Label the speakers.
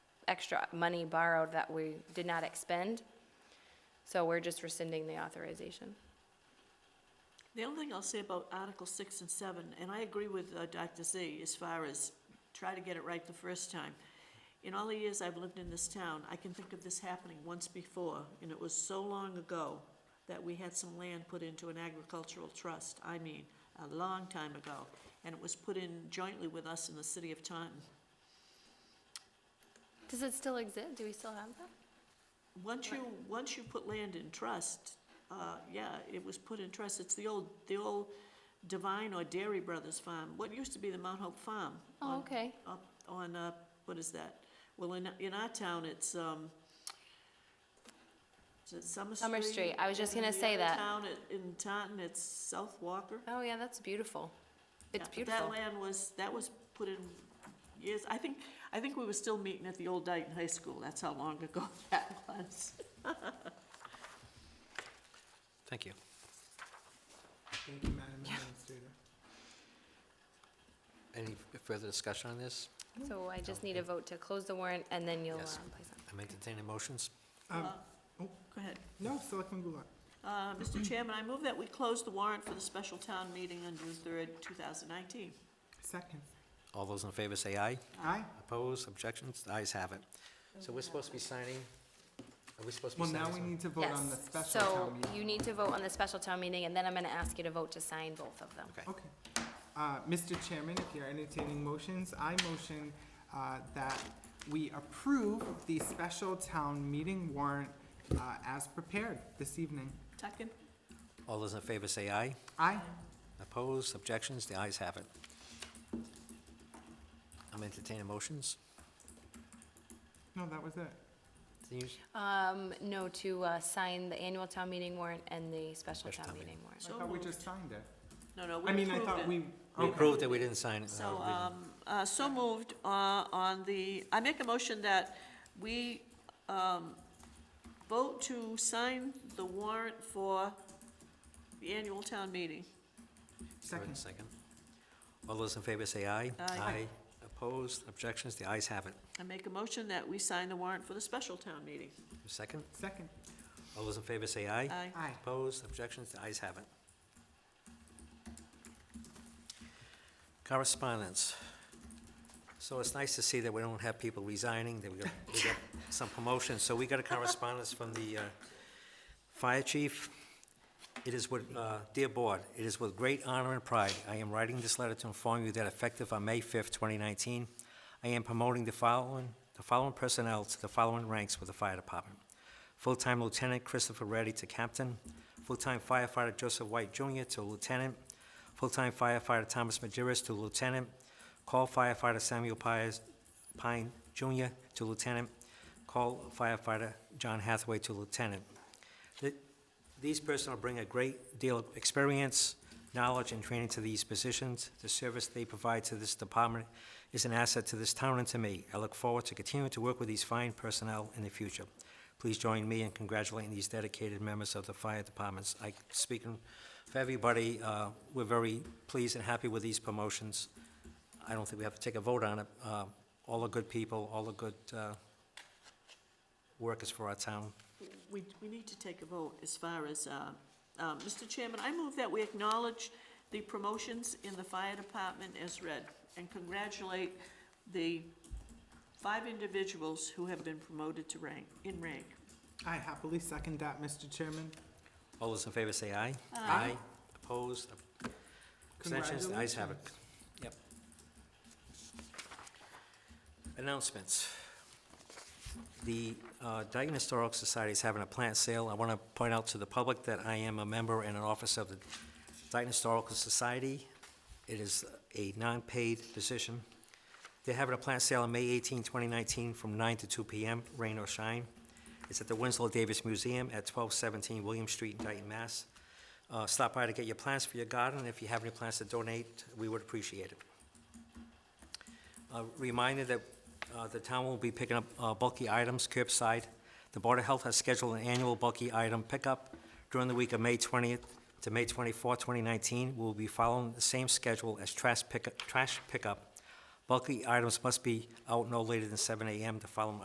Speaker 1: extra money borrowed that we did not expend. So we're just rescinding the authorization.
Speaker 2: The only thing I'll say about Article six and seven, and I agree with uh, Dr. Z as far as try to get it right the first time. In all the years I've lived in this town, I can think of this happening once before, and it was so long ago that we had some land put into an agricultural trust, I mean, a long time ago. And it was put in jointly with us in the city of Taunton.
Speaker 1: Does it still exist? Do we still have that?
Speaker 2: Once you, once you put land in trust, uh, yeah, it was put in trust, it's the old, the old Divine or Dairy Brothers Farm, what used to be the Mount Hope Farm.
Speaker 1: Oh,
Speaker 2: on-
Speaker 1: okay.
Speaker 2: Up on, uh, what is that? Well, in, in our town, it's, um, is it Summer Street?
Speaker 1: Summer Street. I was just
Speaker 2: And
Speaker 1: gonna
Speaker 2: in the
Speaker 1: say
Speaker 2: other
Speaker 1: that.
Speaker 2: town, it- in Taunton, it's South Walker.
Speaker 1: Oh, yeah, that's beautiful. It's
Speaker 2: Yeah, but That
Speaker 1: beautiful.
Speaker 2: land was, that was put in years, I think, I think we were still meeting at the old Dayton High School, that's how long ago that was.
Speaker 3: Thank you.
Speaker 4: Thank you, Madam Administrator.
Speaker 3: Any further discussion on this?
Speaker 1: So I just need a vote to close the warrant, and then you'll um,
Speaker 3: Yes.
Speaker 1: place it.
Speaker 3: I'm entertaining motions.
Speaker 4: Um,
Speaker 2: Go ahead.
Speaker 4: No, Selectman Goulart.
Speaker 2: Uh, Mr. Chairman, I move that we close the warrant for the special town meeting on June third, two thousand nineteen.
Speaker 4: Second.
Speaker 3: All those in favor say aye.
Speaker 4: Aye.
Speaker 3: Opposed, objections, the ayes have it. So we're supposed to be signing, are we supposed to be
Speaker 4: Well,
Speaker 3: signing?
Speaker 4: now we
Speaker 3: this one?
Speaker 4: need to vote on the
Speaker 1: Yes.
Speaker 4: special
Speaker 1: So
Speaker 4: town
Speaker 1: you
Speaker 4: meeting.
Speaker 1: need to vote on the special town meeting, and then I'm gonna ask you to vote to sign both of them.
Speaker 3: Okay.
Speaker 4: Okay. Uh, Mr. Chairman, if you're entertaining motions, I motion, uh, that we approve the special town meeting warrant, uh, as prepared this evening.
Speaker 2: Tuckin?
Speaker 3: All those in favor say aye.
Speaker 4: Aye.
Speaker 3: Opposed, objections, the ayes have it. I'm entertaining motions.
Speaker 4: No, that was it.
Speaker 3: Do you-
Speaker 1: Um, no, to, uh, sign the annual town meeting warrant and the special
Speaker 3: Special
Speaker 1: town
Speaker 3: town
Speaker 1: meeting warrant.
Speaker 4: I
Speaker 2: So
Speaker 4: thought we
Speaker 2: moved.
Speaker 4: just signed it.
Speaker 2: No, no, we
Speaker 4: I mean, I
Speaker 2: approved
Speaker 4: thought
Speaker 2: it.
Speaker 4: we.
Speaker 3: We
Speaker 4: okay.
Speaker 3: approved that we didn't sign. uh,
Speaker 2: So,
Speaker 3: we didn't-
Speaker 2: um, uh, so moved, uh, on the, I make a motion that we, um, vote to sign the warrant for the annual town meeting.
Speaker 4: Second.
Speaker 3: Second. All those in favor say aye.
Speaker 2: Aye. Aye.
Speaker 3: Opposed, objections, the ayes have it.
Speaker 2: I make a motion that we sign the warrant for the special town meeting.
Speaker 3: Second.
Speaker 4: Second.
Speaker 3: All those in favor say aye.
Speaker 2: Aye.
Speaker 4: Aye.
Speaker 3: Opposed, objections, the ayes have it. Correspondence. So it's nice to see that we don't have people resigning, that we got, we got some promotions. So we got a correspondence from the uh, fire chief. It is with, uh, dear board, it is with great honor and pride I am writing this letter to inform you that effective on May 5th, 2019, I am promoting the following, the following personnel to the following ranks with the fire department. Full-time Lieutenant Christopher Reddy to captain, full-time firefighter Joseph White Jr. to lieutenant, full-time firefighter Thomas Majerus to lieutenant, call firefighter Samuel Pires, Pine Jr. to lieutenant, call firefighter John Hathaway to lieutenant. Th- These personnel bring a great deal of experience, knowledge, and training to these positions. The service they provide to this department is an asset to this town and to me. I look forward to continuing to work with these fine personnel in the future. Please join me in congratulating these dedicated members of the fire departments. I, speaking for everybody, uh, we're very pleased and happy with these promotions. I don't think we have to take a vote on it. Uh, All the good people, all the good uh, workers for our town.
Speaker 2: We, we need to take a vote as far as, uh, uh, Mr. Chairman, I move that we acknowledge the promotions in the fire department as read and congratulate the five individuals who have been promoted to rank, in rank.
Speaker 4: I happily second that, Mr. Chairman.
Speaker 3: All those in favor say aye.
Speaker 4: Aye.
Speaker 3: Opposed, abstentions, the ayes have it. Yep. Announcements. The uh, Dayton Historical Society is having a plant sale. I want to point out to the public that I am a member and an officer of the Dayton Historical Society. It is a non-paid position. They're having a plant sale on May 18, 2019, from 9 to 2 p.m., rain or shine. It's at the Winslow Davis Museum at 1217 William Street, in Dayton, Mass. Uh, Stop by to get your plants for your garden, and if you have any plants to donate, we would appreciate it. A Reminder that uh, the town will be picking up uh, bulky items curbside. The Board of Health has scheduled an annual bulky item pickup during the week of May 20th to May 24th, 2019. We'll be following the same schedule as trash pickup. trash pickup. Bulky items must be out no later than 7 a.m. The following